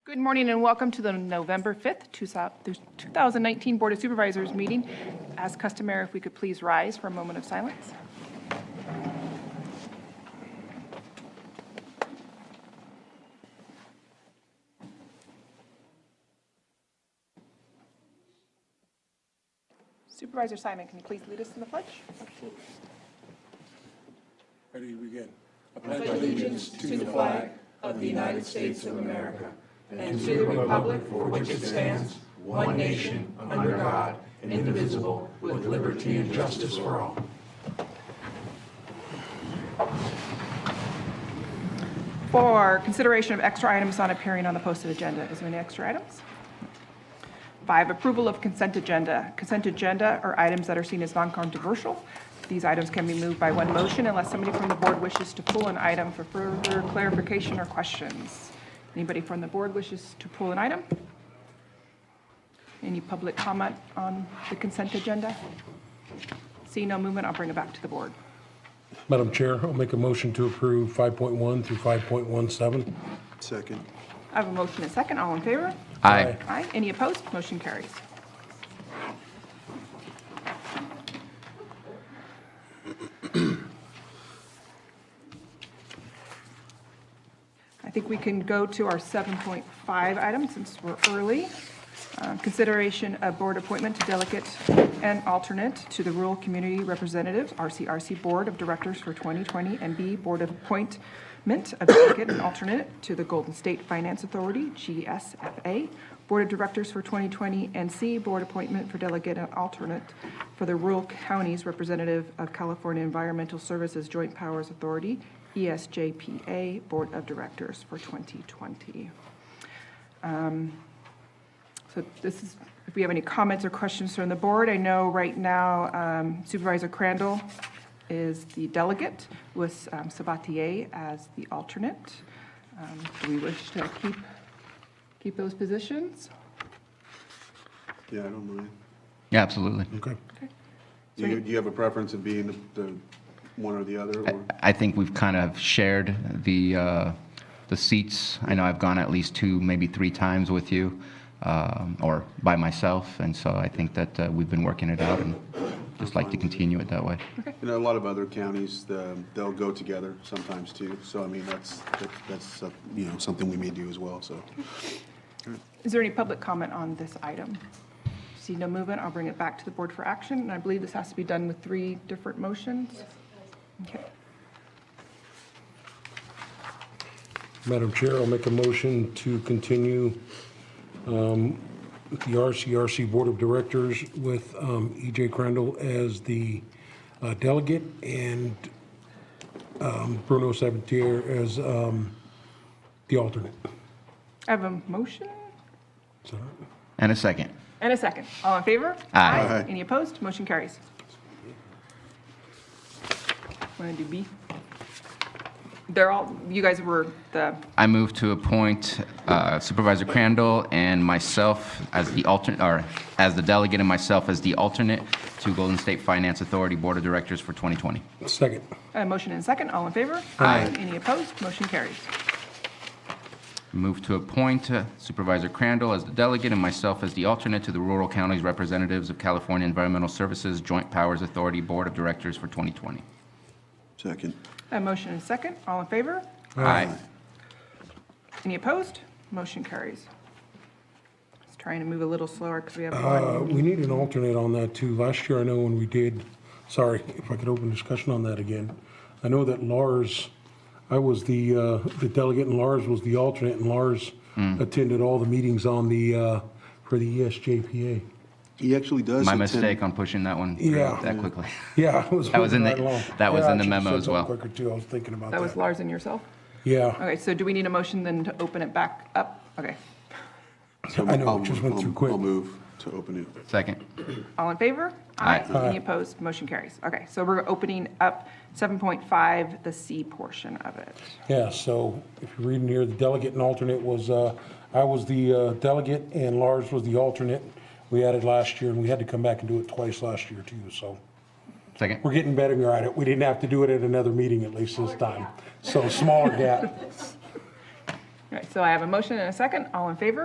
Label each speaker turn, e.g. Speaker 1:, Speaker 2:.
Speaker 1: Good morning and welcome to the November 5th, 2019 Board of Supervisors meeting. As customary, if we could please rise for a moment of silence. Supervisor Simon, can you please lead us in the pledge?
Speaker 2: Ready to begin.
Speaker 1: For consideration of extra items not appearing on the posted agenda, is there any extra items? Five, approval of consent agenda. Consent agenda are items that are seen as non-controversial. These items can be moved by one motion unless somebody from the board wishes to pull an item for further clarification or questions. Anybody from the board wishes to pull an item? Any public comment on the consent agenda? See no movement, I'll bring it back to the board.
Speaker 3: Madam Chair, I'll make a motion to approve 5.1 through 5.17.
Speaker 2: Second.
Speaker 1: I have a motion and second, all in favor?
Speaker 4: Aye.
Speaker 1: Aye. Any opposed? Motion carries. I think we can go to our 7.5 item since we're early. Uh, Consideration of board appointment to delegate and alternate to the Rural Community Representatives, RCRC Board of Directors for 2020, and B, Board of Appointment of Delegate and Alternate to the Golden State Finance Authority, GSFA, Board of Directors for 2020, and C, Board Appointment for Delegate and Alternate for the Rural Counties Representative of California Environmental Services Joint Powers Authority, E ESJPA Board of Directors for 2020. Um, So this is, if we have any comments or questions from the board, I know right now um, Supervisor Crandall is the delegate with um, Sabatier as the alternate. Um, Do we wish to keep, keep those positions?
Speaker 2: Yeah, I don't mind.
Speaker 4: Yeah, absolutely.
Speaker 3: Okay.
Speaker 2: Do you, do you have a preference of being the, the one or the other? or-
Speaker 4: I think we've kind of shared the, uh, the seats. I know I've gone at least two, maybe three times with you, um, or by myself, and so I think that uh, we've been working it out, and just like to continue it that way.
Speaker 2: You know, a lot of other counties, the, they'll go together sometimes too. So I mean, that's, that's- that's, uh, you know, something we may do as well, so.
Speaker 1: Is there any public comment on this item? See no movement, I'll bring it back to the board for action, and I believe this has to be done with three different motions? Okay.
Speaker 3: Madam Chair, I'll make a motion to continue um, with the RCRC Board of Directors with um, E.J. Crandall as the uh, delegate and um, Bruno Sabatier as um, the alternate.
Speaker 1: I have a motion
Speaker 3: Is that all right?
Speaker 4: And a second.
Speaker 1: and a second. All in favor?
Speaker 4: Aye.
Speaker 2: Aye.
Speaker 1: Any opposed? Motion carries. Want to do B? They're all, you guys were the,
Speaker 4: I move to appoint uh, Supervisor Crandall and myself as the alternate, or as the delegate and myself as the alternate to Golden State Finance Authority Board of Directors for 2020.
Speaker 3: Second.
Speaker 1: a motion and second, all in favor?
Speaker 4: Aye.
Speaker 1: Any opposed? Motion carries.
Speaker 4: Move to appoint uh, Supervisor Crandall as the delegate and myself as the alternate to the Rural Counties Representatives of California Environmental Services Joint Powers Authority Board of Directors for 2020.
Speaker 2: Second.
Speaker 1: A motion and second, all in favor?
Speaker 4: Aye.
Speaker 1: Any opposed? Motion carries. Just trying to move a little slower because we have
Speaker 3: Uh,
Speaker 1: one.
Speaker 3: We need an alternate on that too. Last year, I know when we did, sorry, if I could open discussion on that again. I know that Lars, I was the, uh, the delegate and Lars was the alternate and Lars
Speaker 4: Hmm.
Speaker 3: attended all the meetings on the, uh, for the ESJPA.
Speaker 2: He actually does.
Speaker 4: My
Speaker 2: attend-
Speaker 4: mistake on pushing that one through
Speaker 3: Yeah.
Speaker 4: that quickly.
Speaker 3: Yeah, I was.
Speaker 4: That was in
Speaker 3: moving
Speaker 4: the-
Speaker 3: right along.
Speaker 4: that was
Speaker 3: Yeah, I
Speaker 4: in the
Speaker 3: should've
Speaker 4: memo
Speaker 3: said
Speaker 4: as
Speaker 3: something
Speaker 4: well.
Speaker 3: Quicker too, I was thinking about
Speaker 1: That was
Speaker 3: that.
Speaker 1: Lars and yourself?
Speaker 3: Yeah,
Speaker 1: Okay, so do we need a motion then to open it back up? Okay.
Speaker 2: So
Speaker 3: I know,
Speaker 2: I'll
Speaker 3: it just
Speaker 2: move-
Speaker 3: went
Speaker 2: I'll-
Speaker 3: through quick.
Speaker 2: I'll move to open it.
Speaker 4: Second.
Speaker 1: All in favor?
Speaker 4: Aye.
Speaker 1: Any opposed? Motion carries. Okay, so we're opening up 7.5, the C portion of it.
Speaker 3: yeah, so if you're reading here, the delegate and alternate was, uh, I was the uh, delegate and Lars was the alternate. We added last year and we had to come back and do it twice last year too, so.
Speaker 4: Second.
Speaker 3: We're getting better at it. We didn't have to do it at another meeting at least this time. So smaller gap.
Speaker 1: All right, so I have a motion and a second. All in favor?